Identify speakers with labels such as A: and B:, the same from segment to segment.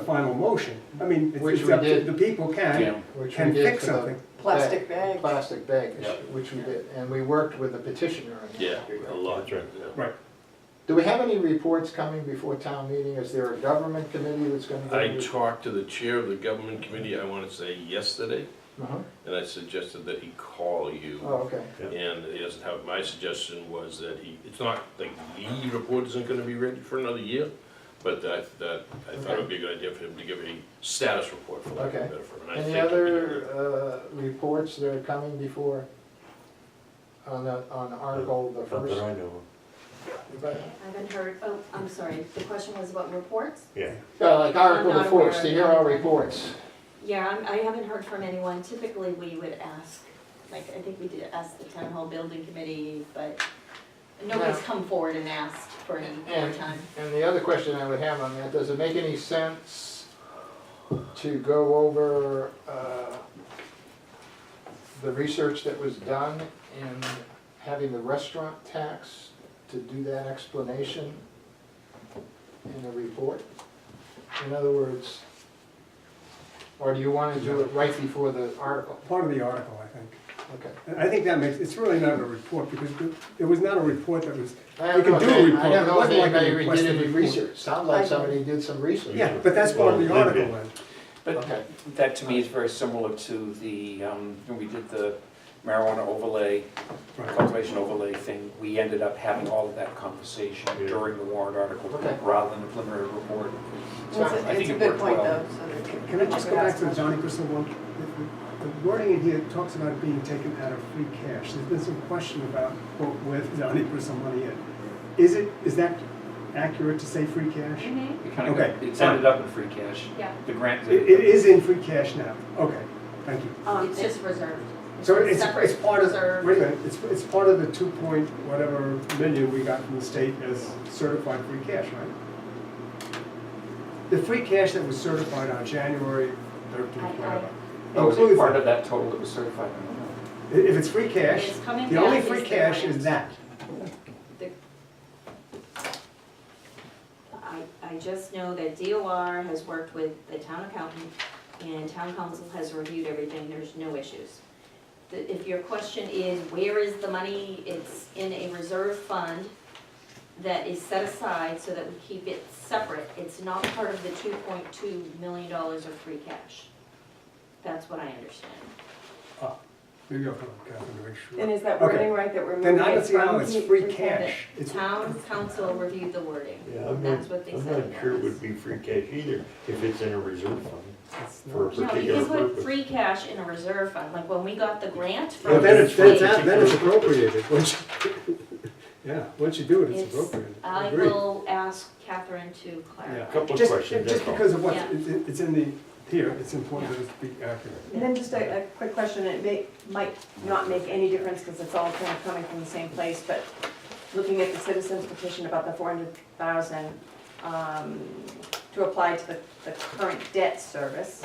A: final motion. I mean, it's-
B: Which
A: it's
B: we
A: up to,
B: did.
A: the people can,
C: Yeah.
B: which we
A: can
B: did
A: fix
B: for the
A: something.
D: Plastic bag.
B: Plastic bag issue,
C: Yep.
B: which we did, and we worked with the petitioner on that.
C: Yeah, a lot, right, yeah.
A: Right.
B: Do we have any reports coming before town meeting? Is there a government committee that's gonna? do
C: I
B: it?
C: talked to the chair of the government committee, I wanna say yesterday,
B: Uh-huh.
C: and I suggested that he call you.
B: Oh, okay,
C: And he doesn't have, my suggestion was that he, it's not, like, the report isn't gonna be ready for another year, but that, that, I thought it would be a good idea for him to give a status report, for lack of a
B: Okay.
C: better term. and I
B: any
C: think-
B: other, uh, reports that are coming before? On the, on article the
E: Not that
B: first,
E: I know of.
B: but,
F: I haven't heard, oh, I'm sorry, the question was about reports?
E: Yeah.
B: uh, like article the
F: not aware
B: first,
F: of
B: the
F: that.
B: hero reports.
F: Yeah, I'm- I haven't heard from anyone. Typically, we would ask, like, I think we did ask the town hall building committee, but nobody's
B: Yeah.
F: come forward and asked for any more
B: And-
F: time.
B: And the other question I would have on that, does it make any sense to go over uh, the research that was done in having the restaurant tax to do that explanation in a report? In other words, or do you want to do it right before the article?
A: Part of the article, I think.
B: Okay.
A: And I think that makes, it's really not a report, because there- there was not a report that was,
B: I
A: We
B: don't know
A: can do a
B: if any-
A: report.
B: I don't
A: It
B: know if
A: wasn't like a
B: anybody
A: requested
B: did any
A: report.
B: research. Sounds like somebody did some research.
A: yeah, but that's part of the
E: Well,
A: article then.
G: But
B: Okay.
G: that to me is very similar to the, um, when we did the marijuana overlay,
A: Right.
G: cultivation overlay thing, we ended up having all of that conversation
E: Yeah.
G: during the warrant article
B: Okay.
G: rather than the preliminary report.
D: It's a-
G: I think
D: It's a
G: it
D: good
G: worked
D: point though.
G: well.
D: so that-
A: Can I just go
D: Ask
A: back to the
D: them.
A: Johnny Crystal one? The- The the wording in here talks about it being taken out of free cash. There's been some question about, quote, where the Johnny Crystal money is. Is it, is that accurate to say free cash?
G: It kind of,
A: Okay,
G: got- it's ended up in free cash.
F: Yeah.
G: The grant
A: It
G: did
A: it
G: it.
A: is in free cash now, okay, thank you.
F: Um, It's just reserved.
A: So it's,
F: separate
A: it's part of,
F: reserve.
A: wait a minute, it's, it's part of the two point whatever million we got from the state as certified free cash, right? The free cash that was certified on January thirteenth,
F: I- I-
A: whatever.
G: Oh, was it
A: includes
G: part
A: that.
G: of that total that was certified? I don't know.
A: I- If it's free cash,
F: It's coming
A: the only
F: back
A: free
F: as the
A: cash
F: grant.
A: is that.
F: I, I just know that DOR has worked with the town accountant and town council has reviewed everything, there's no issues. The- If your question is, where is the money, it's in a reserve fund that is set aside so that we keep it separate. It's not part of the two point two million dollars of free cash. That's what I understand.
A: Maybe I'll come, Catherine, to make
D: And
A: sure.
D: is that
A: Okay.
D: wording right that we're moving
A: Then I
D: it
A: don't see how
D: from
A: it's
D: he-
A: free
D: cash?
A: cash.
F: The
A: It's,
F: town council reviewed the wording,
E: Yeah, I'm
F: that's
E: not,
F: what they
E: I'm
F: said.
E: not sure it
F: was.
E: would be free cash either, if it's in a reserve fund
A: it's
E: for a
A: not.
F: No, you
E: particular
F: can put
E: purpose.
F: free cash in a reserve fund, like when we got the grant from.
A: But then it's, then it's,
F: the
A: out-
F: state,
A: then it's appropriated, once, you- yeah, once you do it, it's
F: It's-
A: appropriated.
F: I
A: Agreed.
F: will ask Catherine to
A: Yeah.
F: clarify.
E: Couple of
A: Just-
E: questions,
A: Just
E: that's all.
A: because of what,
F: Yeah.
A: it's in the, here, it's important that it be accurate.
D: And then just a, a quick question, it may, might not make any difference because it's all kind of coming from the same place, but looking at the citizens petition about the four hundred thousand, um, to apply to the, the current debt service,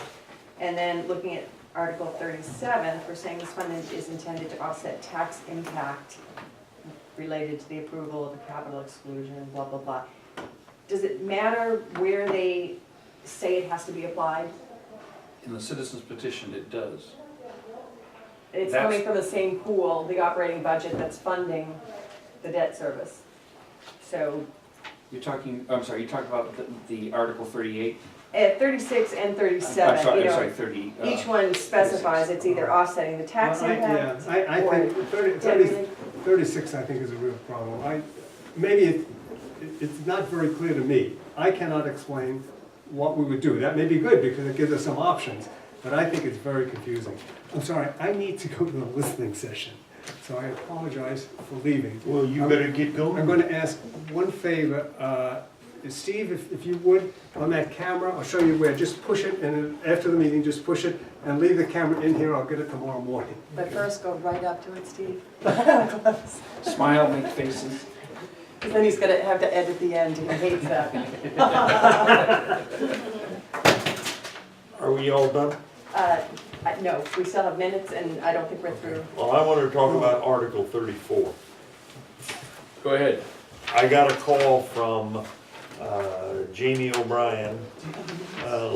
D: and then looking at Article thirty-seven, we're saying this fund is- is intended to offset tax impact related to the approval of a capital exclusion, blah, blah, blah. Does it matter where they say it has to be applied?
G: In the citizens petition, it does.
D: It's
G: That's-
D: coming from the same pool, the operating budget that's funding the debt service. So
G: You're talking, I'm sorry, you talked about the, the Article thirty-eight?
D: at thirty-six and
G: I'm
D: thirty-seven,
G: sorry,
D: you
G: I'm sorry,
D: know,
G: thirty. uh,
D: each one specifies it's either offsetting the tax
A: Well, I-
D: impact.
A: Yeah, I, I
D: or-
A: think thirty-
D: Yeah, I
A: thirty-
D: mean,
A: thirty-six, I think, is a real problem. I, maybe it, it- it's not very clear to me. I cannot explain what we would do. That may be good because it gives us some options, but I think it's very confusing. I'm sorry, I need to go to the listening session, so I apologize for leaving.
E: Well, you better get going.
A: I'm gonna ask one favor, uh, Steve, if, if you would, on that camera, I'll show you where, just push it, and then after the meeting, just push it, and leave the camera in here, I'll get it tomorrow morning.
H: But first, go right up to it, Steve,
G: Smile, make faces.
H: because then he's gonna have to edit the end, and he hates that.
E: Are we all done?
D: uh, I- No, we still have minutes and I don't think we're through.
E: Well, I wanna talk about Article thirty-four.
C: Go ahead.
E: I got a call from, uh, Jamie O'Brien, uh,